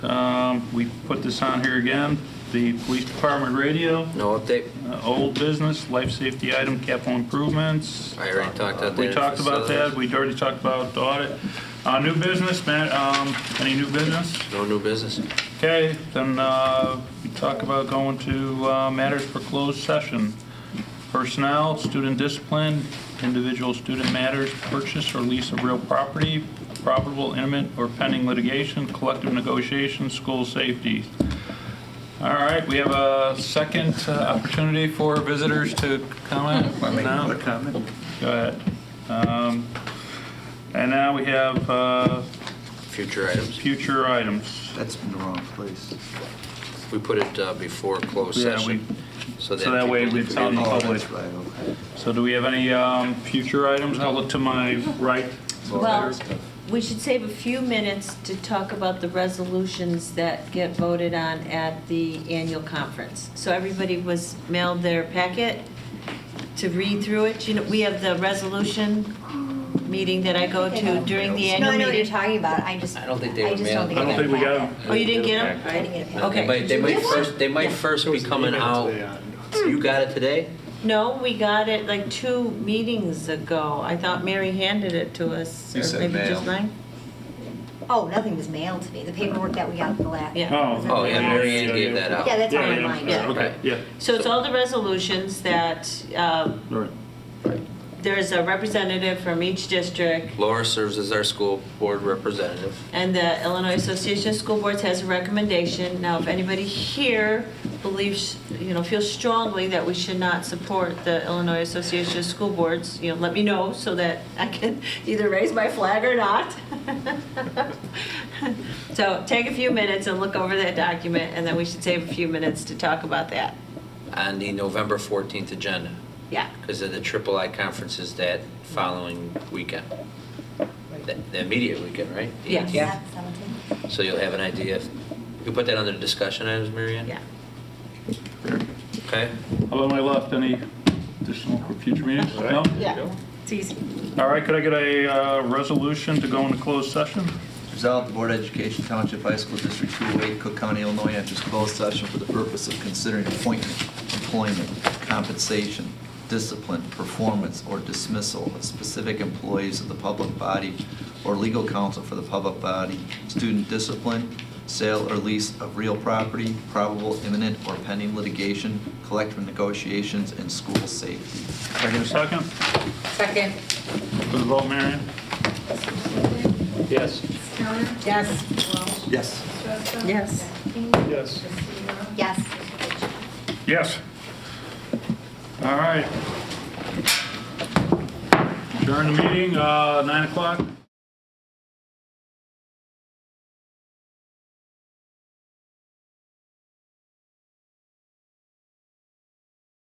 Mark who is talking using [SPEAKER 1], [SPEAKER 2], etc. [SPEAKER 1] Um, We put this on here again, the police department radio,
[SPEAKER 2] No update?
[SPEAKER 1] uh, old business, life safety item, capital improvements.
[SPEAKER 2] I already talked about that.
[SPEAKER 1] We talked about that, we already talked about the audit. Uh, New business, Matt, um, any new business?
[SPEAKER 2] No new business?
[SPEAKER 1] Okay, then uh, we talk about going to uh, matters for closed session. Personnel, student discipline, individual student matters, purchase or lease of real property, probable imminent or pending litigation, collective negotiations, school safety. All right, we have a second uh, opportunity for visitors to comment. No?
[SPEAKER 3] comment?
[SPEAKER 1] Go ahead. Um, And now we have uh,
[SPEAKER 2] Future items?
[SPEAKER 1] future items.
[SPEAKER 3] That's in the wrong place.
[SPEAKER 2] We put it uh, before closed
[SPEAKER 1] Yeah, we-
[SPEAKER 2] session.
[SPEAKER 1] so that way
[SPEAKER 2] people-
[SPEAKER 1] we'd tell them-
[SPEAKER 3] Oh,
[SPEAKER 1] Public.
[SPEAKER 3] that's right, okay.
[SPEAKER 1] So do we have any um, future items? I'll look to my right.
[SPEAKER 4] Well, we should save a few minutes to talk about the resolutions that get voted on at the annual conference. So everybody was mailed their packet to read through it. You know, we have the resolution meeting that I go to during the
[SPEAKER 5] No,
[SPEAKER 4] annual
[SPEAKER 5] I know what you're
[SPEAKER 4] meeting.
[SPEAKER 5] talking about, I just.
[SPEAKER 2] I don't think they were
[SPEAKER 5] just
[SPEAKER 2] mailed.
[SPEAKER 5] don't think
[SPEAKER 1] I don't
[SPEAKER 5] got
[SPEAKER 1] think we got
[SPEAKER 5] it.
[SPEAKER 1] them.
[SPEAKER 4] Oh, you didn't get
[SPEAKER 5] I didn't
[SPEAKER 4] them?
[SPEAKER 5] get it.
[SPEAKER 2] They
[SPEAKER 4] Okay.
[SPEAKER 2] might- They
[SPEAKER 5] Did you
[SPEAKER 2] might
[SPEAKER 5] get one?
[SPEAKER 2] first, they might
[SPEAKER 4] Yeah.
[SPEAKER 2] first be coming out. You got it today?
[SPEAKER 4] No, we got it like two meetings ago. I thought Mary handed it to us.
[SPEAKER 3] You
[SPEAKER 4] or
[SPEAKER 3] said
[SPEAKER 4] maybe just
[SPEAKER 3] mail.
[SPEAKER 4] mine.
[SPEAKER 5] Oh, nothing was mailed to me, the paperwork that we got the last.
[SPEAKER 4] Yeah.
[SPEAKER 1] Oh.
[SPEAKER 2] Oh, yeah, Mary Ann
[SPEAKER 1] Yeah,
[SPEAKER 2] gave
[SPEAKER 1] yeah.
[SPEAKER 2] that out.
[SPEAKER 5] Yeah, that's on
[SPEAKER 1] Yeah,
[SPEAKER 5] my
[SPEAKER 1] yeah,
[SPEAKER 5] mind.
[SPEAKER 4] Yeah.
[SPEAKER 1] Okay, yeah.
[SPEAKER 4] So it's all the resolutions that uh,
[SPEAKER 1] All right.
[SPEAKER 4] there's a representative from each district,
[SPEAKER 2] Laura serves as our school board representative.
[SPEAKER 4] and the Illinois Association of School Boards has a recommendation. Now, if anybody here believes, you know, feels strongly that we should not support the Illinois Association of School Boards, you know, let me know so that I can either raise my flag or not. So take a few minutes and look over that document, and then we should save a few minutes to talk about that.
[SPEAKER 2] on the November 14th agenda
[SPEAKER 4] Yeah.
[SPEAKER 2] because of the triple I conferences that following weekend. The the immediate weekend, right? The
[SPEAKER 4] Yeah.
[SPEAKER 2] 18th.
[SPEAKER 4] Yeah.
[SPEAKER 5] Seventeen.
[SPEAKER 2] So you'll have an idea. if- You put that under discussion items, Mary Ann?
[SPEAKER 4] Yeah.
[SPEAKER 2] Okay?
[SPEAKER 1] Hello, my left, any additional for future meetings? No?
[SPEAKER 4] Yeah. It's easy.
[SPEAKER 1] All right, could I get a uh, resolution to go into closed session?
[SPEAKER 3] Resolved, the Board of Education Township High School District 208, Cook County, Illinois, enters closed session for the purpose of considering appointment, employment, compensation, discipline, performance, or dismissal of specific employees of the public body or legal counsel for the public body, student discipline, sale or lease of real property, probable imminent or pending litigation, collective negotiations, and school safety.
[SPEAKER 1] Can I get a second?
[SPEAKER 5] Second.
[SPEAKER 1] For the vote, Marion? Yes.
[SPEAKER 6] Counter?
[SPEAKER 4] Yes.
[SPEAKER 6] Welch?
[SPEAKER 3] Yes.
[SPEAKER 6] Shasta?
[SPEAKER 4] Yes.
[SPEAKER 6] King?
[SPEAKER 1] Yes.
[SPEAKER 6] Castillo?
[SPEAKER 5] Yes.
[SPEAKER 1] Yes. All right. During the meeting, uh, 9 o'clock.